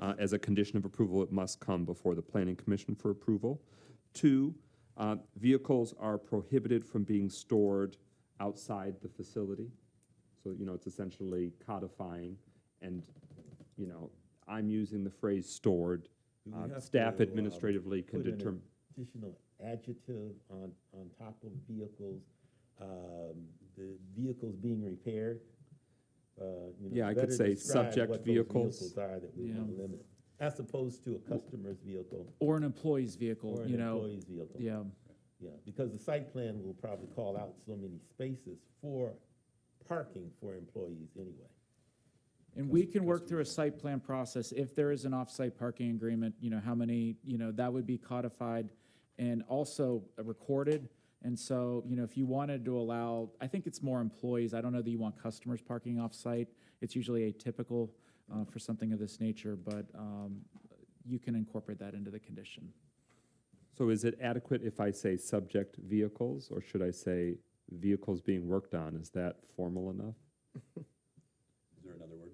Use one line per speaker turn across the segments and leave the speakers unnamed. Uh, As a condition of approval, it must come before the planning commission for approval. Two, uh, vehicles are prohibited from being stored outside the facility. So, you know, it's essentially codifying, and, you know, I'm using the phrase stored.
Do we
Uh,
have
Staff
to, um,
administratively can
put an
determine,
Additional adjective on, on top of vehicles, um, the vehicles being repaired. uh, you know,
Yeah, I could
better
say
describe
subject
what those
vehicles.
Are that we want to limit, as opposed to a customer's vehicle
Or an employee's vehicle,
or an
you know?
employee's vehicle.
Yeah,
Yeah, because the site plan will probably call out so many spaces for parking for employees anyway.
and we can work through a site plan process. If there is an off-site parking agreement, you know, how many, you know, that would be codified and also recorded. And so, you know, if you wanted to allow, I think it's more employees. I don't know that you want customers parking off-site. It's usually atypical uh, for something of this nature, but um, you can incorporate that into the condition.
so is it adequate if I say subject vehicles, or should I say vehicles being worked on? Is that formal enough?
Is there another word?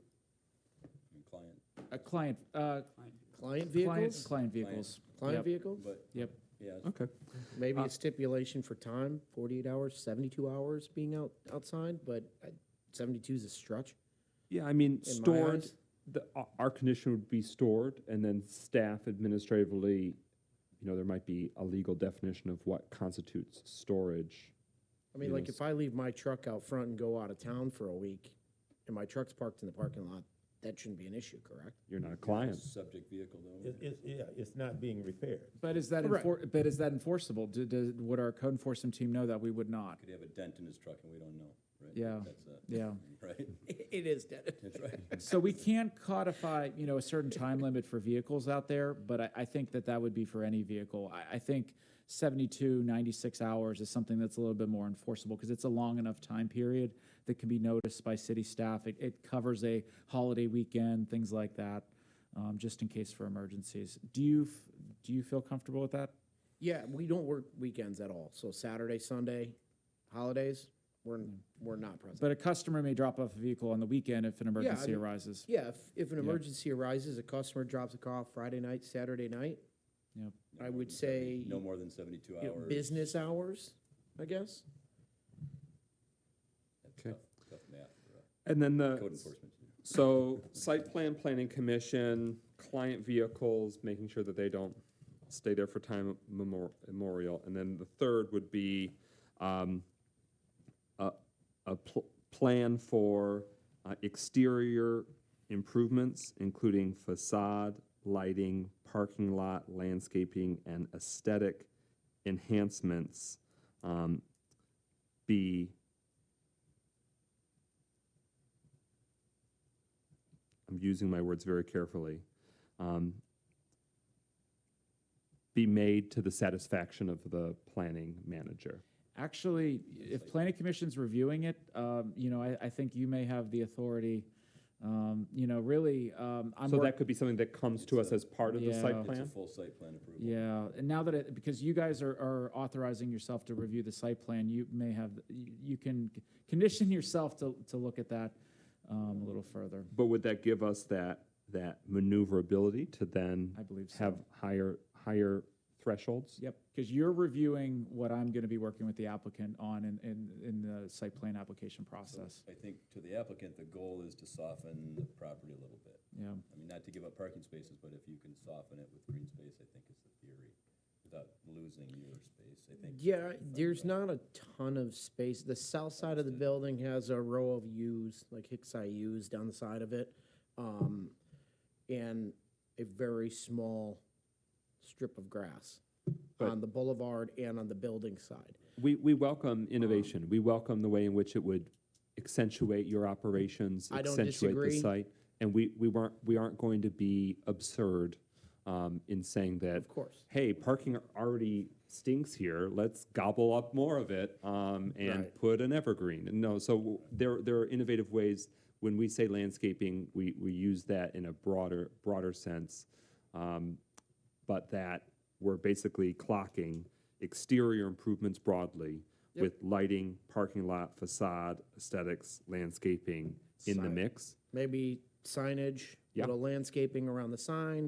I mean, Client,
A client, uh,
Client
client,
vehicles?
client vehicles.
Client
Yep,
vehicles?
but,
Yep.
yeah, it's-
Okay.
Maybe a stipulation for time, forty-eight hours, seventy-two hours being out, outside, but seventy-two is a stretch.
Yeah, I mean,
In my
stored,
eyes.
the, our- our condition would be stored, and then staff administratively, you know, there might be a legal definition of what constitutes storage.
I mean, like, if I leave my truck out front and go out of town for a week, and my truck's parked in the parking lot, that shouldn't be an issue, correct?
You're not a client.
subject vehicle though.
It, it's, yeah, it's not being repaired.
But is that
Correct.
enfor- but is that enforceable? Do, do, would our code enforcement team know that we would not?
Could have a dent in his truck and we don't know, right?
Yeah.
That's a,
Yeah.
right?
It is dead.
That's right.
So we can codify, you know, a certain time limit for vehicles out there, but I, I think that that would be for any vehicle. I, I think 72, 96 hours is something that's a little bit more enforceable because it's a long enough time period that can be noticed by city staff. It, it covers a holiday weekend, things like that, um, just in case for emergencies. Do you f- do you feel comfortable with that?
Yeah, we don't work weekends at all, so Saturday, Sunday, holidays, we're, we're not present.
But a customer may drop off a vehicle on the weekend if an emergency
mean-
arises.
Yeah, if, if an emergency arises, a customer drops a call Friday night, Saturday night,
Yep.
I would say
No more than seventy-two
you know,
hours.
business hours, I guess.
That's
Okay.
tough- Tough math for uh,
And then
code
the,
enforcement.
so site plan, planning commission, client vehicles, making sure that they don't stay there for time memor- memorial. And then the third would be um, a, a pl- plan for uh, exterior improvements, including facade, lighting, parking lot, landscaping, and aesthetic enhancements. Um, be I'm using my words very carefully, um, be made to the satisfaction of the planning manager.
Actually, if planning commission's reviewing it, um, you know, I, I think you may have the authority, um, you know, really, um, I'm.
So
work-
that could be something that comes to us as part of the
Yeah.
site
It's a
plan?
full site plan approval.
Yeah, and now that it, because you guys are, are authorizing yourself to review the site plan, you may have, you you can c- condition yourself to, to look at that, um, a little further.
But would that give us that, that maneuverability to then
I believe so.
have higher, higher thresholds?
Yep, because you're reviewing what I'm gonna be working with the applicant on in, in, in the site plan application process.
I think to the applicant, the goal is to soften the property a little bit.
Yeah,
I mean, not to give up parking spaces, but if you can soften it with green space, I think is the theory, without losing your space, I think.
Yeah, there's not a ton of space. The south side of the building has a row of U's, like Hicksite U's down the side of it. Um, and a very small strip of grass
But-
on the boulevard and on the building side.
We, we welcome innovation. We welcome the way in which it would accentuate your operations,
I don't
accentuate the
disagree.
site. And we, we weren't, we aren't going to be absurd um, in saying that.
Of course.
Hey, parking already stinks here. Let's gobble up more of it um, and
Right.
put an evergreen. No, so there, there are innovative ways. When we say landscaping, we, we use that in a broader, broader sense. Um, but that we're basically clocking exterior improvements broadly with lighting, parking lot, facade, aesthetics, landscaping in the
Signage.
mix.
Maybe signage,
Yeah.
little landscaping around the sign,